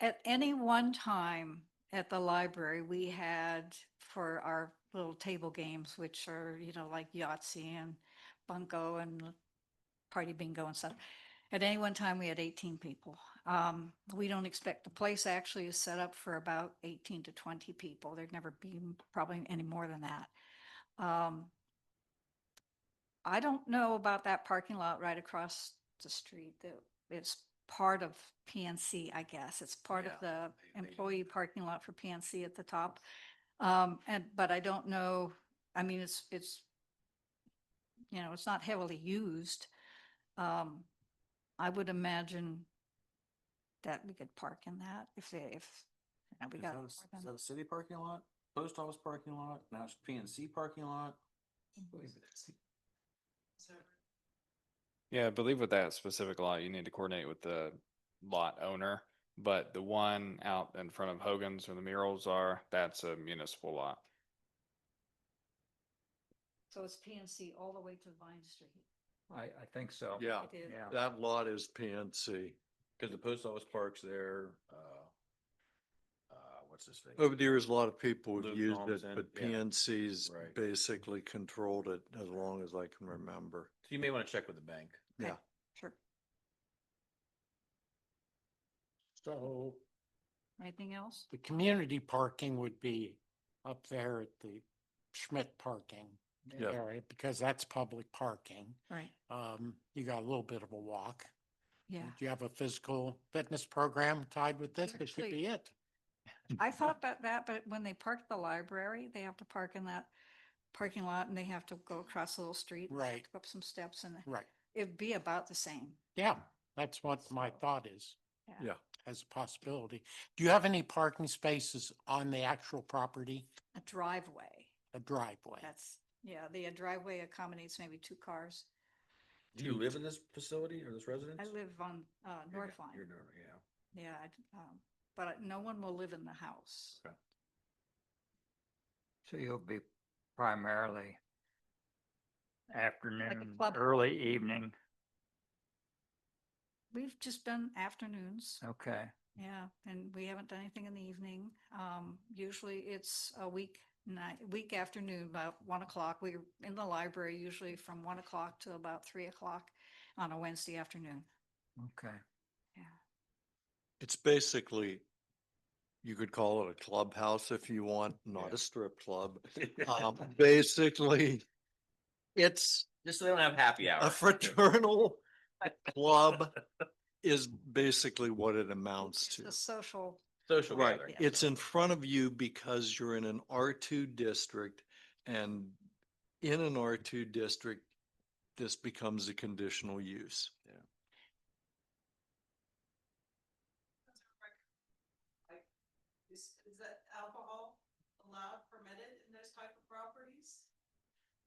at any one time at the library, we had for our little table games, which are, you know, like Yahtzee and Bunko and Party Bingo and stuff. At any one time, we had eighteen people. Um, we don't expect, the place actually is set up for about eighteen to twenty people. There'd never be m- probably any more than that. Um, I don't know about that parking lot right across the street that it's part of PNC, I guess. It's part of the they- they- employee parking lot for PNC at the top. Um, and, but I don't know, I mean, it's, it's, you know, it's not heavily used. Um, I would imagine that we could park in that if they, if, you know, we Is got. that a more s- than- Is that a city parking lot, post office parking lot, now it's PNC parking lot? Yeah, I believe with that specific lot, you need to coordinate with the lot owner. But the one out in front of Hogan's where the murals are, that's a municipal lot. So it's PNC all the way to Vine Street. I, I think so. Yeah, It is. Yeah. that lot is PNC. Cause the post office parks there, uh, uh, what's this thing? Over the years, a lot of people Luke have used it, Thompson, but yeah. PNC's Right. Mm-hmm. basically controlled it as long as I can remember. So You may wanna check with the bank. Yeah. Sure. So Anything else? the community parking would be up there at the Schmidt parking Yeah. area, because that's public parking. Right. Um, you got a little bit of a walk. Do Yeah. you have a physical fitness program tied with this? This Actually- could be it. I thought about that, but when they park at the library, they have to park in that parking lot and they have to go across a little street. and they have Right. to Go up some steps and Right. it'd be about the same. Yeah, that's what my thought is. Yeah. As a possibility. Do you have any parking spaces on the actual property, A driveway, a driveway? that's, yeah, the driveway accommodates maybe two cars. Do you live in this facility or this residence? I live on, uh, You're North down- You're, Line, down there, yeah. yeah, I d- um, but I- no one will live in the house. So you'll be primarily afternoon, club. early evening. We've just done afternoons. Okay. Yeah, and we haven't done anything in the evening. Um, usually it's a week night, week afternoon, about one o'clock. We're in the library usually from one o'clock to about three o'clock on a Wednesday afternoon. Okay. It's basically, you could call it a clubhouse if you want, not Yeah. a strip club. Um, basically, it's Just so they don't have happy hour. a fraternal club is basically what it amounts It's to. a social, Social Right, gathering. it's in front of you because you're in an R two district and in an R two district, this becomes a conditional use. Is, is that alcohol allowed, permitted in those type of properties?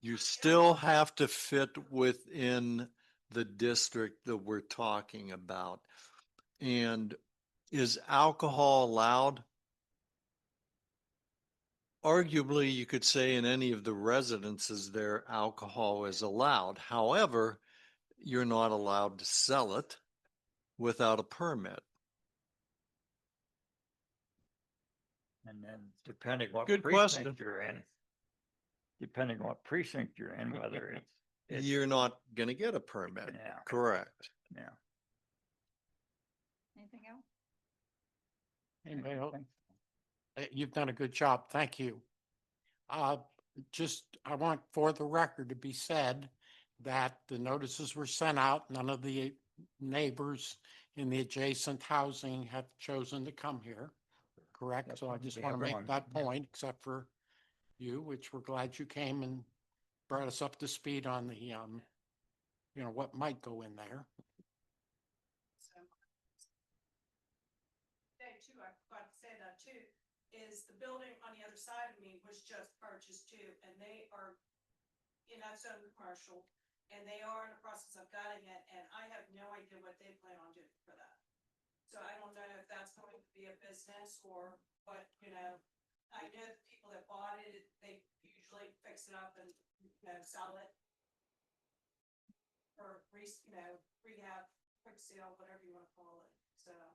You still have to fit within the district that we're talking about. And is alcohol allowed? Arguably, you could say in any of the residences there, alcohol is allowed. However, you're not allowed to sell it without a permit. And then depending what Good question. precinct you're in, depending what precinct you're in, whether it's. it's- You're not going to get a permit. Yeah, Correct. yeah. anything else? Anybody else? Uh, You've done a good job. Thank you. Uh, just, I want for the record to be said that the notices were sent out. None of the neighbors in the adjacent housing have chosen to come here, correct? Yep, So I just we want to have one, make that yeah. point, except for you, which we're glad you came and brought us up to speed on the, um, you know, what might go in there. So- Thing too, I forgot to say that too, is the building on the other side of me was just purchased too, and they are in that zone commercial, and they are in the process of gutting it, and I have no idea what they plan on doing for that. So I don't know if that's going to be a business or what, you know, I know the people that bought it, they usually fix it up and, you know, sell it. Or re, you know, rehab quick sale, whatever you wanna call it, so.